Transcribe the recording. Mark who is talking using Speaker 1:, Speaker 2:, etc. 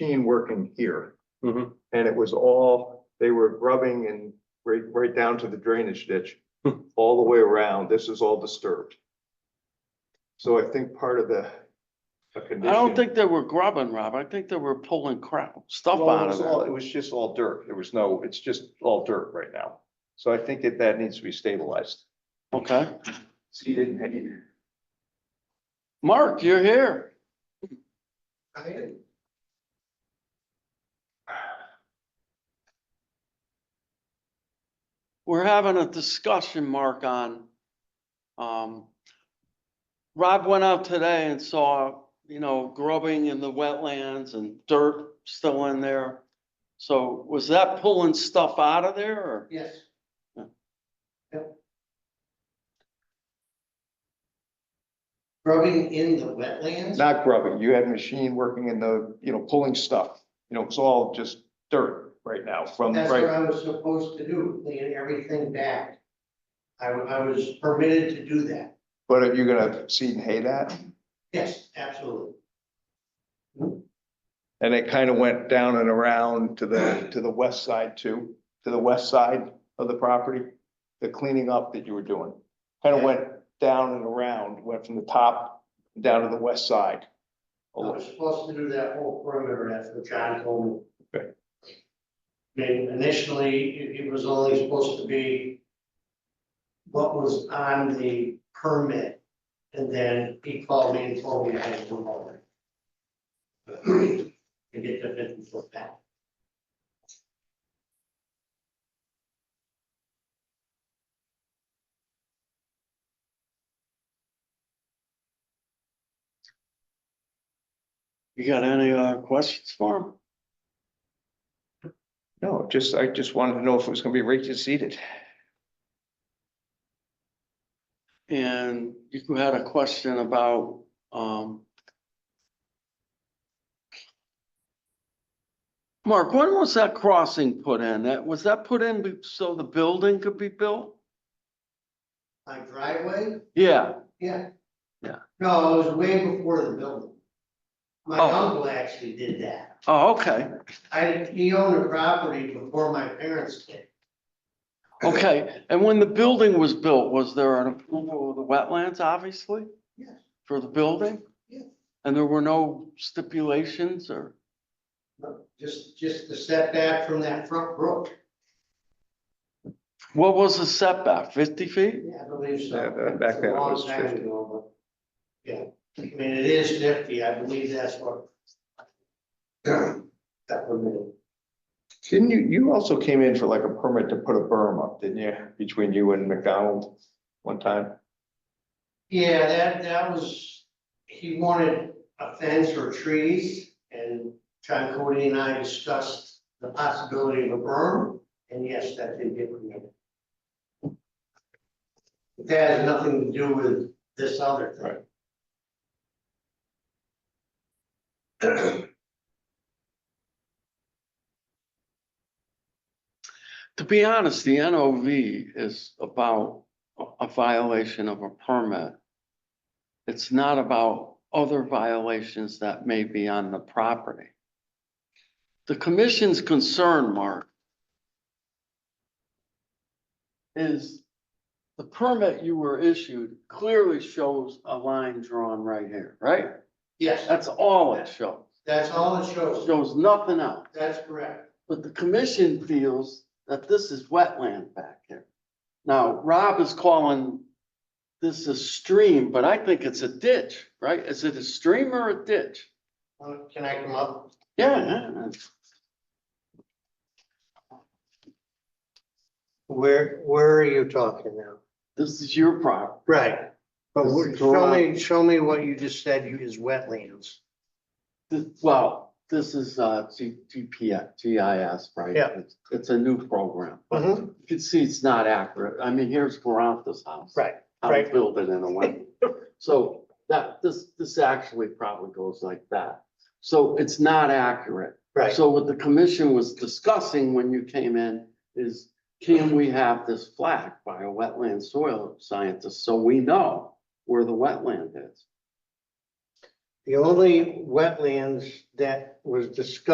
Speaker 1: machine working here.
Speaker 2: Mm-hmm.
Speaker 3: Mhm.
Speaker 1: And it was all, they were grubbing and right, right down to the drainage ditch,
Speaker 3: Hmm.
Speaker 1: all the way around. This is all disturbed. So I think part of the. I
Speaker 2: I don't think they were grubbing, Rob. I think they were pulling crap, stuff
Speaker 1: Well, it
Speaker 2: out of
Speaker 1: was all-
Speaker 2: there.
Speaker 1: It was just all dirt. There was no, it's just all dirt right now. So I think that that needs to be stabilized.
Speaker 2: Okay.
Speaker 1: See, didn't.
Speaker 2: Mark, you're here. We're having a discussion, Mark, on, um, Rob went out today and saw, you know, grubbing in the wetlands and dirt still in there. So was that pulling stuff out of there or?
Speaker 4: Yes.
Speaker 2: Yeah.
Speaker 4: Yep. Rubbing in the wetlands?
Speaker 1: Not grubbing. You had machine working in the, you know, pulling stuff. You know, it's all just dirt right now from,
Speaker 4: That's what
Speaker 1: right.
Speaker 4: I was supposed to do, clean everything back. I, I was permitted to do that.
Speaker 1: But are you gonna seed and hay that?
Speaker 4: Yes, absolutely.
Speaker 1: And it kind of went down and around to the, to the west side too, to the west side of the property. The cleaning up that you were doing, kind of went down and around, went from the top down to the west side. Oh,
Speaker 4: I was supposed to do that whole perimeter, that's what John told me.
Speaker 1: Okay.
Speaker 4: I mean, initially, it, it was only supposed to be what was on the permit, and then he called me and told me I had to move over. To get the fifty foot back.
Speaker 2: You got any, uh, questions for him?
Speaker 1: No, just, I just wanted to know if it was gonna be rake seeded.
Speaker 2: And you had a question about, um. Mark, when was that crossing put in? That, was that put in be- so the building could be built?
Speaker 4: My driveway,
Speaker 2: Yeah,
Speaker 4: yeah.
Speaker 2: Yeah.
Speaker 4: No, it was way before the building. My
Speaker 2: Oh.
Speaker 4: uncle actually did that.
Speaker 2: oh, okay,
Speaker 4: I, he owned a property before my parents did.
Speaker 2: okay. And when the building was built, was there an approval of the wetlands, obviously?
Speaker 4: Yes.
Speaker 2: For the building?
Speaker 4: Yes.
Speaker 2: And there were no stipulations or,
Speaker 4: Just, just the setback from that front brook.
Speaker 2: what was the setback, fifty feet?
Speaker 4: Yeah, I believe so.
Speaker 1: Yeah, back then it
Speaker 4: It's a long
Speaker 1: was
Speaker 4: time
Speaker 1: 50.
Speaker 4: ago, but, Yeah, I mean, it is fifty, I believe that's what. That permitted.
Speaker 1: Didn't you, you also came in for like a permit to put a berm up, didn't you, between you and McDonald one time?
Speaker 4: Yeah, that, that was, he wanted a fence or trees, and John Cody and I discussed the possibility of a berm, and yes, that did get permitted. But That has nothing to do with this other thing.
Speaker 2: To be honest, the NOV is about a- a violation of a permit. It's not about other violations that may be on the property. The commission's concern, Mark, is the permit you were issued clearly shows a line drawn right here, right?
Speaker 4: Yes,
Speaker 2: That's all it shows.
Speaker 4: that's all it
Speaker 2: It
Speaker 4: shows,
Speaker 2: Shows nothing else.
Speaker 4: that's correct.
Speaker 2: But the commission feels that this is wetland back here. Now, Rob is calling this a stream, but I think it's a ditch, right? Is it a stream or a ditch?
Speaker 4: Uh, Can I come up?
Speaker 2: Yeah, yeah, yeah.
Speaker 4: Where, where are you talking now?
Speaker 2: this is your property.
Speaker 4: Right, but
Speaker 2: This
Speaker 4: wh-
Speaker 2: is
Speaker 4: show
Speaker 2: Veronica.
Speaker 4: me, show me what you just said is wetlands.
Speaker 2: This- Well, this is uh, G- GPF, GIS, right?
Speaker 4: Yeah.
Speaker 2: It's- It's a new program. But
Speaker 4: Mhm.
Speaker 2: you can see it's not accurate. I mean, here's Garanta's house.
Speaker 4: Right,
Speaker 2: How to
Speaker 4: right.
Speaker 2: build it in a way. So that, this, this actually probably goes like that. So it's not accurate.
Speaker 4: right.
Speaker 2: So what the commission was discussing when you came in is, can we have this flag by a wetland soil scientist so we know where the wetland is?
Speaker 4: The only wetlands that was discussed